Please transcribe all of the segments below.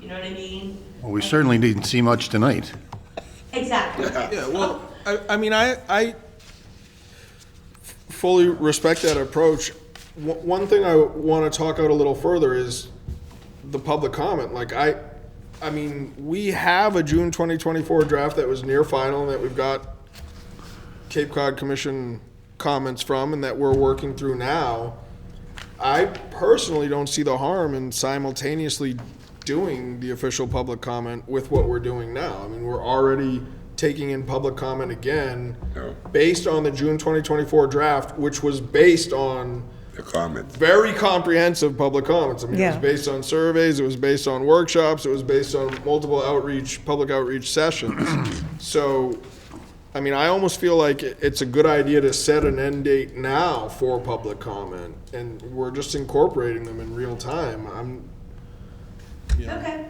You know what I mean? Well, we certainly didn't see much tonight. Exactly. Yeah, well, I, I mean, I, I fully respect that approach. One one thing I want to talk out a little further is the public comment. Like, I, I mean, we have a June 2024 draft that was near final and that we've got Cape Cod Commission comments from and that we're working through now. I personally don't see the harm in simultaneously doing the official public comment with what we're doing now. I mean, we're already taking in public comment again based on the June 2024 draft, which was based on the comments. very comprehensive public comments. I mean, it Yeah. was based on surveys, it was based on workshops, it was based on multiple outreach, public outreach sessions. so, I mean, I almost feel like it- it's a good idea to set an end date now for public comment, and we're just incorporating them in real time. I'm, Okay.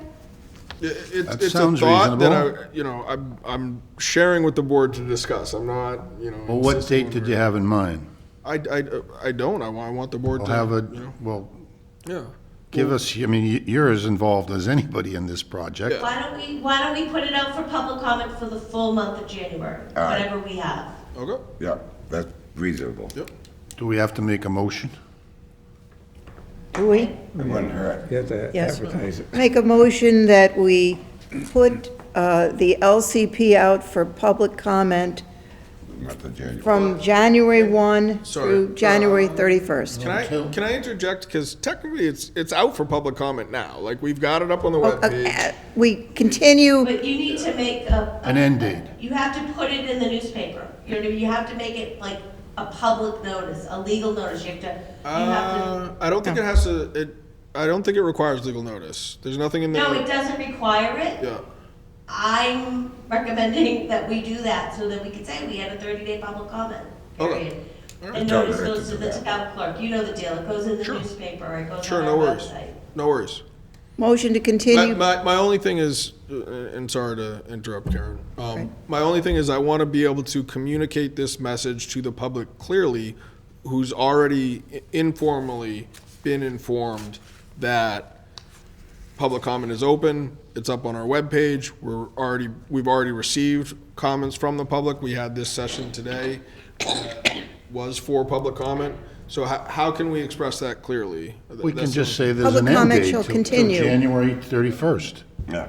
it, it- That it's a sounds thought that reasonable. I, you know, I'm, I'm sharing with the board to discuss. I'm not, you know. Well, what insisting date on- did you have in mind? I, I, I don't. I want, I want the board We'll to have you know, a, well, yeah. give us, I mean, y- you're as involved as anybody in this project. Why don't we, why don't we put it out for public comment for the full month of January? All right. Whatever we have. Okay. Yeah, that's reasonable. Yep. Do we have to make a motion? Do we? It wouldn't hurt. You have to Yes. advertise it. Make a motion that we put uh, the LCP out for public comment Month of January. from January 1 Sorry. Uh, through January Can 31st. I can I interject? Because technically, it's it's out for public comment now. Like we've got it up on the Oh, web uh, page. We continue, But you need to make a. An end date. You have to put it in the newspaper. You know, you have to make it like a public notice, a legal notice. You have to, you have Uh, I don't think it has to. It I don't think it requires legal notice. There's nothing in to, there. no, it doesn't require it. Yeah. I'm recommending that we do that so that we can say we had a thirty-day public comment, Okay. period. I And thought notice I goes to could do the that. town clerk. You know the deal. It goes in the Sure. newspaper, it goes Sure. on No our worries. website. No worries. motion to My, continue. my, my only thing is, uh, and sorry to interrupt, Karen. Um, my only thing is I want to be able to communicate this message to the public clearly, who's already i- informally been informed that public comment is open. It's up on our webpage. We're already, we've already received comments from the public. We had this session today that was for public comment. So how, how can we express that clearly? We can That's the just say only- there's an Public end comment date shall till- till continue. January 31st. Yeah.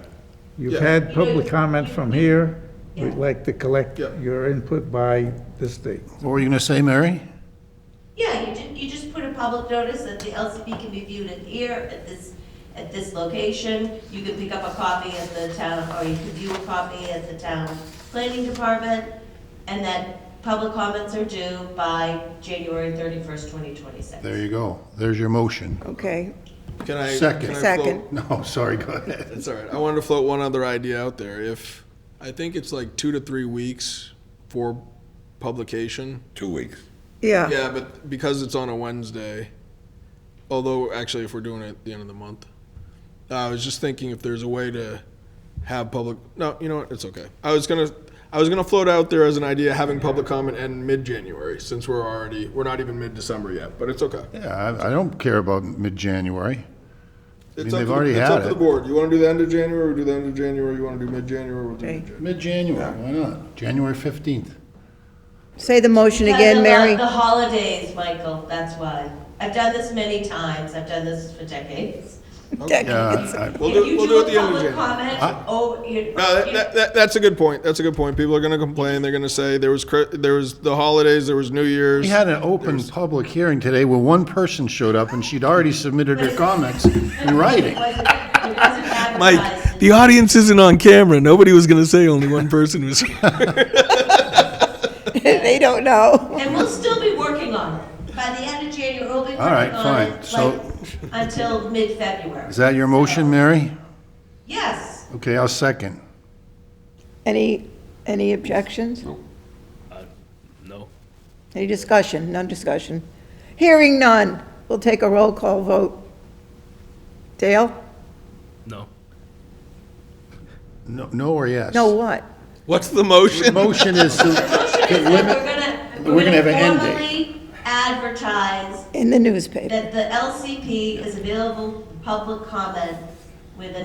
You've Yeah. had public comment from here. We'd Yeah. like to collect Yeah. your input by this date. What were you going to say, Mary? Yeah, you ju- you just put a public notice that the LCP can be viewed in here, at this, at this location. You can pick up a copy at the town, or you can view a copy at the town planning department, and that public comments are due by January thirty-first, twenty twenty-six. There you go. There's your motion. Okay, Can I? Second. can I Second. float- No, sorry, go ahead. That's all right. I wanted to float one other idea out there. If I think it's like two to three weeks for publication. Two weeks. yeah. Yeah, but because it's on a Wednesday, although actually if we're doing it at the end of the month, Uh, I was just thinking if there's a way to have public. No, you know what? It's okay. I was gonna. I was gonna float out there as an idea having public comment end mid-January since we're already we're not even mid-December yet, but it's okay. Yeah, I I don't care about mid-January. It's mean, they've up to the- already it's had up to it. the board. You want to do the end of January? We'll do the end of January. You want to do mid-January? We'll do Okay. mid-January. Mid-January, why not? January 15th. Say the motion Because of again, the- Mary. The holidays, Michael, that's why. I've done this many times, I've done this for decades. Yeah, I- We'll do, If we'll do it the end You of do a public January. comment, oh, you. No, that, you- that, that, that's a good point. That's a good point. People are going to complain. They're going to say there was cri- there was the holidays, there was New Year's. We had an open public hearing today where one person showed up and she'd already submitted her comments in writing. It wasn't it wasn't advertised. Mike, the audience isn't on camera. Nobody was going to say only one person was. They don't know. And we'll still be working on it. By the end of January, we'll be working All right, on it, fine. So- like, until mid-February. Is that your motion, Mary? Yes, Okay, I'll second. Any, any objections? No. Any discussion? None discussion. Hearing none. We'll take a roll call vote. Dale? No. No, no or yes? No, what? What's the motion? Motion is to we're to limit, gonna, we're we're gonna have an gonna end date. formally advertise In the newspaper. that the LCP is available for public comment with a